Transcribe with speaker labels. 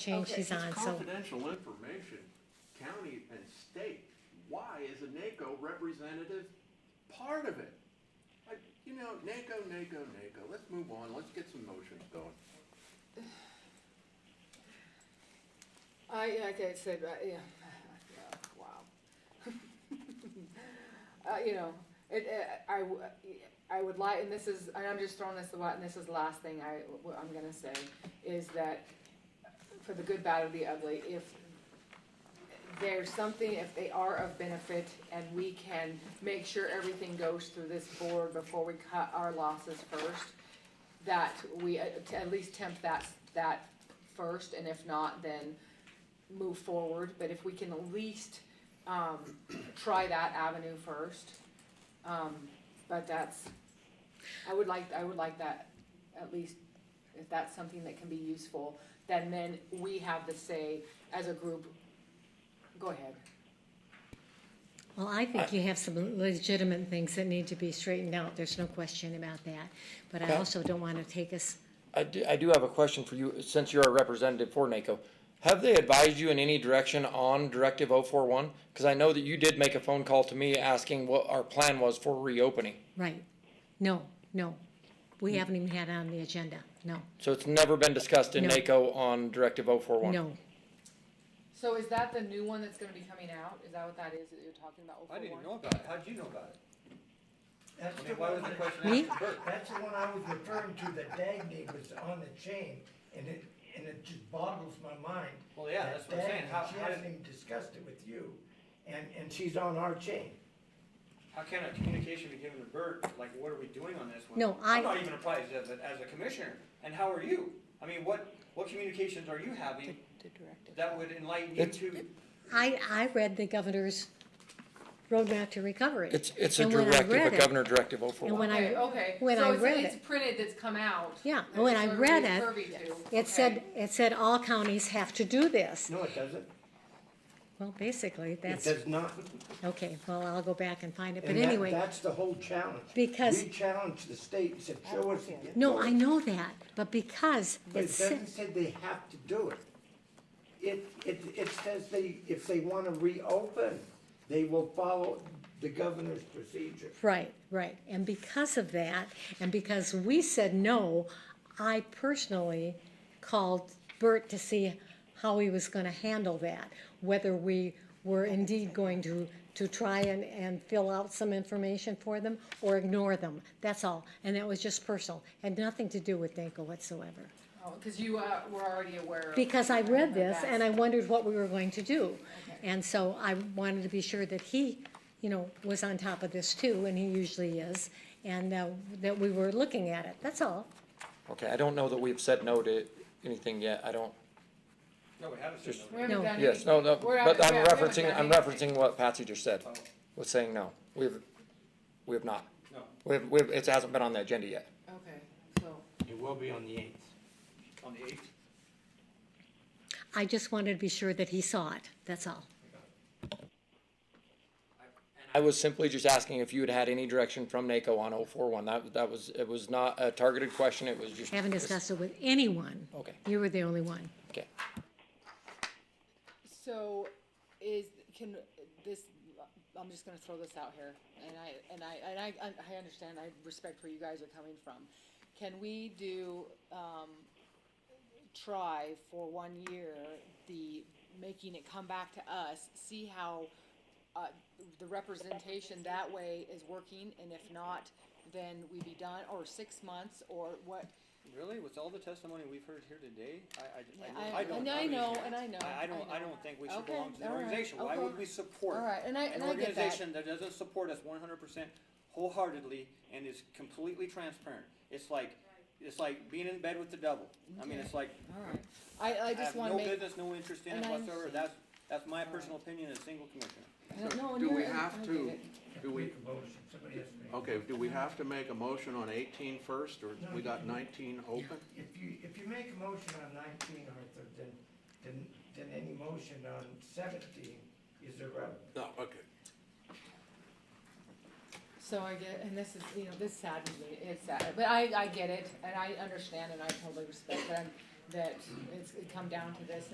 Speaker 1: change
Speaker 2: Okay.
Speaker 1: she's on,
Speaker 3: It's
Speaker 1: so
Speaker 3: confidential information, county and state. Why is a NACO representative part of it? Like, you know, NACO, NACO, NACO, let's move on, let's get some motions going.
Speaker 2: I, like I said, uh, yeah, yeah, wow. Uh, you know, it, it, I, w- I would like, and this is, and I'm just throwing this a lot, and this is the last thing I, what I'm gonna say, is that for the good, bad, or the ugly, if there's something, if they are of benefit, and we can make sure everything goes through this board before we cut our losses first, that we at to at least tempt that, that first, and if not, then move forward, but if we can at least, um, try that avenue first. Um, but that's, I would like, I would like that, at least, if that's something that can be useful, then then we have the say as a group, go ahead.
Speaker 1: Well, I think you have some legitimate things that need to be straightened out, there's no question about that. But I
Speaker 4: Okay.
Speaker 1: also don't want to take us,
Speaker 4: I do, I do have a question for you, since you're a representative for NACO. Have they advised you in any direction on Directive 041? Because I know that you did make a phone call to me asking what our plan was for reopening.
Speaker 1: right, no, no. We haven't even had it on the agenda, no,
Speaker 4: So it's never been discussed in
Speaker 1: No.
Speaker 4: NACO on Directive 041?
Speaker 1: no.
Speaker 2: So is that the new one that's gonna be coming out? Is that what that is that you're talking about?
Speaker 5: I didn't
Speaker 2: 041?
Speaker 5: know about it. How'd you know about it?
Speaker 6: That's
Speaker 5: I
Speaker 6: the
Speaker 5: mean, why was
Speaker 6: one,
Speaker 5: the question
Speaker 1: Me?
Speaker 5: asked to Bert?
Speaker 6: that's the one I was referring to, that Dagny was on the chain, and it, and it just boggles my mind.
Speaker 5: Well, yeah, that's
Speaker 6: that
Speaker 5: what I'm saying.
Speaker 6: Dagny,
Speaker 5: How-
Speaker 6: She
Speaker 5: how
Speaker 6: hasn't
Speaker 5: did-
Speaker 6: even discussed it with you, and, and she's on our chain.
Speaker 5: How can a communication be given to Bert, like, what are we doing on this one?
Speaker 1: No, I-
Speaker 5: I'm not even apprised as a, as a commissioner, and how are you? I mean, what, what communications are you having that would enlighten you
Speaker 4: It's-
Speaker 5: to?
Speaker 1: I, I read the governor's roadmap to recovery.
Speaker 4: It's, it's a
Speaker 1: And when I read
Speaker 4: directive, a
Speaker 1: it-
Speaker 4: governor directive
Speaker 1: And
Speaker 4: 041.
Speaker 1: when I,
Speaker 2: Okay, okay.
Speaker 1: when
Speaker 2: So
Speaker 1: I
Speaker 2: it's-
Speaker 1: read
Speaker 2: It's
Speaker 1: it-
Speaker 2: printed that's come out.
Speaker 1: yeah,
Speaker 2: that
Speaker 1: when I
Speaker 2: everybody's
Speaker 1: read it,
Speaker 2: privy to. Okay.
Speaker 1: it said, it said all counties have to do this.
Speaker 6: No, it doesn't.
Speaker 1: Well, basically,
Speaker 6: It
Speaker 1: that's,
Speaker 6: does not.
Speaker 1: okay, well, I'll go back and find it, but
Speaker 6: And that-
Speaker 1: anyway.
Speaker 6: That's the whole challenge.
Speaker 1: Because- Oh,
Speaker 6: We challenged the state and said, show us. the
Speaker 1: No, I
Speaker 6: authority."
Speaker 1: know that, but because
Speaker 6: But it
Speaker 1: it's,
Speaker 6: doesn't say they have to do it. It, it, it says they, if they wanna reopen, they will follow the governor's procedure.
Speaker 1: right, right, and because of that, and because we said no, I personally called Bert to see how he was gonna handle that, whether we were indeed going to, to try and, and fill out some information for them or ignore them, that's all, and that was just personal, had nothing to do with Danko whatsoever.
Speaker 2: Oh, cause you, uh, were already aware. of-
Speaker 1: Because I read
Speaker 2: of
Speaker 1: this
Speaker 2: that.
Speaker 1: and I wondered what we were going to do. And so I wanted to be sure that he, you know, was on top of this too, and he usually is, and uh, that we were looking at it, that's all.
Speaker 4: Okay, I don't know that we've said no to anything yet, I don't,
Speaker 5: No, we haven't said
Speaker 2: We
Speaker 5: no.
Speaker 2: haven't
Speaker 1: No.
Speaker 2: done
Speaker 4: yes, no, no,
Speaker 2: We're out-
Speaker 4: but I'm
Speaker 2: yeah, we haven't
Speaker 4: referencing, I'm
Speaker 2: done anything.
Speaker 4: referencing what Patsy just said,
Speaker 5: Oh,
Speaker 4: was saying no. We've, we have not.
Speaker 5: No,
Speaker 4: We've, we've, it hasn't been on the agenda yet.
Speaker 2: Okay, so,
Speaker 6: It will be on the eighth.
Speaker 5: on the eighth.
Speaker 1: I just wanted to be sure that he saw it, that's all.
Speaker 4: I was simply just asking if you had had any direction from NACO on 041. That, that was, it was not a targeted question, it was just.
Speaker 1: Haven't discussed it with anyone.
Speaker 4: Okay.
Speaker 1: You were the only one.
Speaker 4: Okay.
Speaker 2: so is, can this, I'm just gonna throw this out here, and I, and I, and I, I understand, I respect where you guys are coming from. Can we do, um, try for one year, the, making it come back to us, see how, uh, the representation that way is working, and if not, then we be done, or six months, or what,
Speaker 5: Really? With all the testimony we've heard here today,
Speaker 2: Yeah,
Speaker 5: I, I,
Speaker 2: I-
Speaker 5: I don't.
Speaker 2: and I
Speaker 5: mean,
Speaker 2: know, and I know,
Speaker 5: I, I
Speaker 2: I
Speaker 5: don't, I
Speaker 2: know.
Speaker 5: don't think we should
Speaker 2: Okay,
Speaker 5: belong to the
Speaker 2: all right,
Speaker 5: organization. Why
Speaker 2: okay.
Speaker 5: would we support?
Speaker 2: All right, and I- and I get that.
Speaker 5: An organization that doesn't support us one hundred percent wholeheartedly and is completely transparent. It's like, it's like being in bed with the devil. I mean, it's like,
Speaker 2: alright, I, I
Speaker 5: I
Speaker 2: just
Speaker 5: have
Speaker 2: wanna
Speaker 5: no
Speaker 2: make.
Speaker 5: business, no interest in
Speaker 2: and
Speaker 5: it
Speaker 2: I
Speaker 5: whatsoever.
Speaker 2: understand.
Speaker 5: That's, that's my
Speaker 2: right.
Speaker 5: personal opinion as a single commissioner.
Speaker 2: I don't know, and
Speaker 3: Do
Speaker 2: you're-
Speaker 3: we
Speaker 2: and
Speaker 3: have
Speaker 2: I get
Speaker 3: to,
Speaker 2: it.
Speaker 3: do we,
Speaker 6: Make a motion, somebody has to make. a
Speaker 3: okay, do we have to make a motion on 18 first, or we got nineteen open?
Speaker 6: If you, if you make a motion on nineteen, Arthur, then, then, then any motion on seventeen is irrelevant.
Speaker 3: No, okay.
Speaker 2: So I get, and this is, you know, this saddens me, it's sad, but I, I get it, and I understand, and I totally respect that, that it's come down to this,